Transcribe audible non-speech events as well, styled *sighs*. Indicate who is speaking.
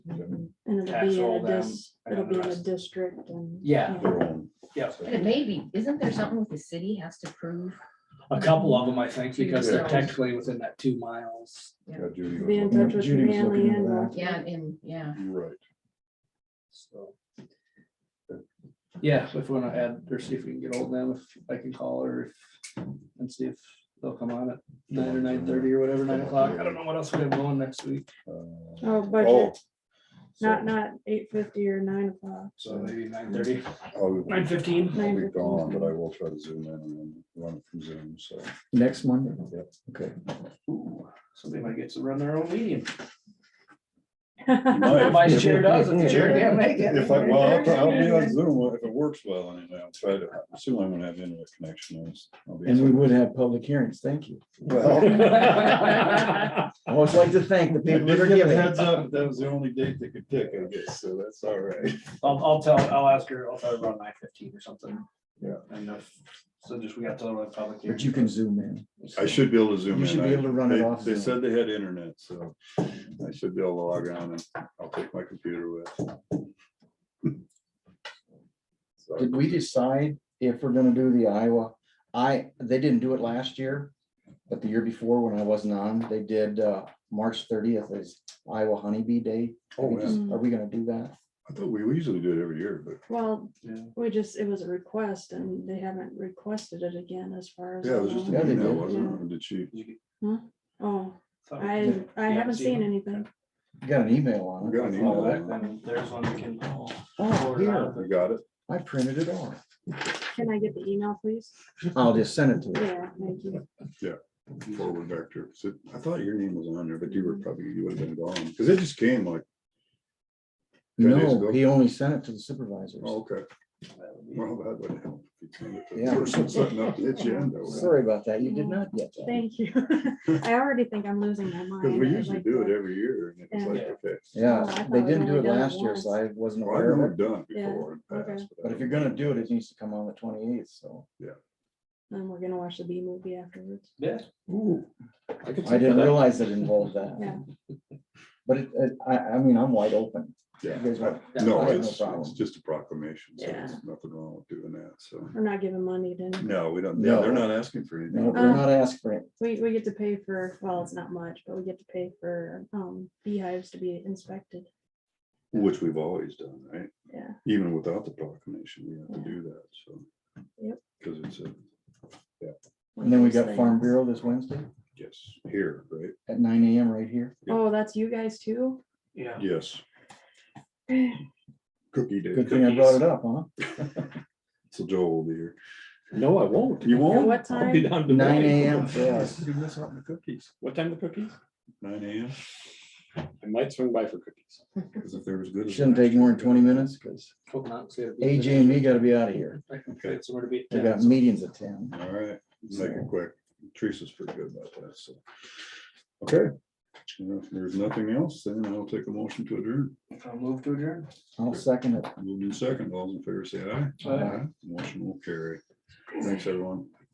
Speaker 1: Mm-hmm.
Speaker 2: it'll
Speaker 3: tax
Speaker 2: be
Speaker 3: roll
Speaker 2: in a
Speaker 3: them.
Speaker 2: dis,
Speaker 3: and
Speaker 2: it'll
Speaker 3: the
Speaker 2: be in a
Speaker 3: rest.
Speaker 2: district and.
Speaker 3: Yeah.
Speaker 1: their own.
Speaker 3: Yeah,
Speaker 4: And it may be, isn't there something with the city has to prove?
Speaker 3: a couple of them, I think, because they're
Speaker 4: Yeah.
Speaker 3: technically within that two miles.
Speaker 1: Yeah, Judy was
Speaker 2: Be in
Speaker 1: looking-
Speaker 2: touch with
Speaker 1: Judy was
Speaker 2: Manley
Speaker 1: looking into
Speaker 2: and uh,
Speaker 1: that.
Speaker 2: Rocky.
Speaker 4: Yeah, and, yeah,
Speaker 1: You're right.
Speaker 3: So. Yeah, if we want to add, or see if we can get hold of them, if I can call her if- and see if they'll come on at nine or nine thirty or whatever, nine o'clock. I don't know what else we have going next week.
Speaker 1: Uh,
Speaker 2: Oh,
Speaker 1: oh,
Speaker 2: budget, not,
Speaker 1: so-
Speaker 2: not eight fifty or nine
Speaker 1: *laughs*
Speaker 2: o'clock.
Speaker 3: So maybe nine thirty,
Speaker 1: I'll be-
Speaker 3: nine fifteen.
Speaker 1: I'll be
Speaker 2: 9:15.
Speaker 1: gone, but I will try to zoom in and run from Zoom, so.
Speaker 5: Next Monday?
Speaker 1: Yep.
Speaker 5: Okay.
Speaker 3: Somebody might get to run their own meeting.
Speaker 1: might.
Speaker 3: My chair does, if the chair can't make it.
Speaker 1: If I, well, I'll- I'll be
Speaker 2: *laughs*
Speaker 1: on Zoom, if it works well, anyway, I'll try to, I assume I'm gonna have internet connection. I'll s- I'll be-
Speaker 5: And we would have public hearings. Thank you.
Speaker 1: Well, *laughs*
Speaker 5: I always like to thank the
Speaker 1: they
Speaker 5: people that are
Speaker 1: did give a
Speaker 5: giving.
Speaker 1: heads up, that was the only date they could pick, I guess, so that's all right.
Speaker 3: I'll, I'll tell, I'll ask her, I'll tell her around nine fifteen or something.
Speaker 1: Yeah.
Speaker 3: And if, so just we got to the public here.
Speaker 5: But you can zoom in.
Speaker 1: I should be able to zoom in.
Speaker 5: You should be
Speaker 1: I-
Speaker 5: able to run it
Speaker 1: they-
Speaker 5: off
Speaker 1: They said
Speaker 5: Zoom.
Speaker 1: they had internet, so I should be able to log on and I'll take my computer with. So,
Speaker 5: Did we decide if we're gonna do the Iowa? I, they didn't do it last year, but the year before when I wasn't on, they did, uh, March thirtieth is Iowa Honeybee Day. Are
Speaker 1: Oh,
Speaker 5: we
Speaker 1: yeah,
Speaker 5: just- are we gonna do that?
Speaker 1: I thought we we usually do it every year, but
Speaker 2: *laughs* Well,
Speaker 3: Yeah.
Speaker 2: we just, it was a request and they haven't requested it again as far as.
Speaker 1: yeah,
Speaker 2: I
Speaker 1: it was just
Speaker 2: know.
Speaker 5: Yeah,
Speaker 1: an
Speaker 5: they
Speaker 1: email,
Speaker 5: did.
Speaker 1: wasn't it? Did she?
Speaker 2: Oh,
Speaker 3: Thought we-
Speaker 2: I, I
Speaker 3: Yeah,
Speaker 2: haven't
Speaker 3: see.
Speaker 2: seen anything.
Speaker 5: You Got an email on
Speaker 1: We got
Speaker 5: it.
Speaker 1: an
Speaker 3: Well,
Speaker 1: email.
Speaker 3: that- then There's one we can.
Speaker 5: Oh, here.
Speaker 1: I got it.
Speaker 5: I printed it off.
Speaker 2: Can I get the email, please?
Speaker 5: I'll just send it to you.
Speaker 2: Yeah, thank
Speaker 1: *laughs*
Speaker 2: you.
Speaker 1: forward back to, because I thought your name was on there, but you were probably, you would have been gone, because it just came like, Ten days
Speaker 5: No,
Speaker 1: ago.
Speaker 5: he only sent it to the supervisors.
Speaker 1: oh, okay. Well, that would help. if you sent it to the
Speaker 5: Yeah.
Speaker 1: *laughs* person setting up the agenda, Because
Speaker 5: Sorry about that. You did not get that.
Speaker 2: Thank
Speaker 1: *laughs*
Speaker 2: you. *laughs* I already think I'm losing my mind.
Speaker 1: we
Speaker 2: I'd
Speaker 1: usually
Speaker 2: like
Speaker 1: do
Speaker 2: to-
Speaker 1: it every year, and it was like, okay,
Speaker 5: Yeah,
Speaker 2: Oh, I
Speaker 5: they
Speaker 2: thought we
Speaker 5: didn't do it
Speaker 2: only done it
Speaker 5: last year, so I wasn't
Speaker 1: well, I
Speaker 5: aware
Speaker 1: know
Speaker 5: of
Speaker 1: we've
Speaker 5: it.
Speaker 1: done it
Speaker 2: Yeah,
Speaker 1: before. in the past, I
Speaker 5: But if you're
Speaker 1: don't
Speaker 5: gonna
Speaker 1: think-
Speaker 5: do it, it needs to come on the twenty eighth, so.
Speaker 2: And we're gonna watch the B movie afterwards.
Speaker 3: Yeah.
Speaker 1: Ooh, I could
Speaker 5: I
Speaker 1: see
Speaker 5: didn't
Speaker 1: that.
Speaker 5: realize
Speaker 2: *laughs*
Speaker 5: it involved
Speaker 2: Yeah.
Speaker 5: that. But it, it- I, I mean, I'm wide open. You guys
Speaker 1: Yeah.
Speaker 5: want-
Speaker 1: No,
Speaker 5: I have no
Speaker 1: it's, it's
Speaker 5: problem.
Speaker 1: just a proclamation, so
Speaker 2: Yeah.
Speaker 1: there's nothing wrong with doing that, so.
Speaker 2: We're not giving money to,
Speaker 1: No, we don't, yeah, they're
Speaker 5: No.
Speaker 1: not asking for
Speaker 5: No,
Speaker 1: anything.
Speaker 5: We're
Speaker 2: Um,
Speaker 5: not asking for it.
Speaker 2: we, we get to pay for, well, it's not much, but we get to pay for, um, beehives to be inspected.
Speaker 1: Which we've always done, right?
Speaker 2: Yeah.
Speaker 1: Even without the proclamation, we have to
Speaker 2: Yeah.
Speaker 1: do that, so.
Speaker 2: Yep.
Speaker 1: Because it's a,
Speaker 2: one
Speaker 5: And then we
Speaker 2: of those
Speaker 5: got Farm
Speaker 2: things.
Speaker 5: Bureau this Wednesday
Speaker 1: yes, here, right?
Speaker 5: at nine AM right here.
Speaker 2: Oh, that's you guys too? *sighs*
Speaker 3: Yeah.
Speaker 1: Yes, cookie day.
Speaker 5: Good thing I brought it up, huh?
Speaker 1: So Joel will be here.
Speaker 6: No, I won't.
Speaker 1: You
Speaker 2: At
Speaker 1: won't?
Speaker 2: what
Speaker 6: I'll be
Speaker 2: time?
Speaker 6: down to
Speaker 5: Nine
Speaker 6: nine.
Speaker 5: AM for us.
Speaker 1: You miss out on the cookies.
Speaker 6: What time the cookies?
Speaker 1: Nine AM,
Speaker 6: I might swing by for cookies.
Speaker 1: because if there was good. as
Speaker 5: Shouldn't take
Speaker 1: last
Speaker 5: more
Speaker 1: year,
Speaker 5: than twenty minutes, cause
Speaker 3: Hope not, 'cause we gotta be-
Speaker 5: AJ and me gotta be out of here.
Speaker 3: I can fit somewhere to be.
Speaker 5: They got meetings at ten.
Speaker 1: All right,
Speaker 5: so.
Speaker 1: make it quick. Teresa's pretty good about that, so. Okay, Well, if there's nothing else, then I'll take a motion to adjourn.
Speaker 3: I'll Move to adjourn.
Speaker 5: I'll second it.
Speaker 1: We'll do second. All those in favor, say aye.
Speaker 3: Aye.
Speaker 1: Motion will carry. Thanks, everyone.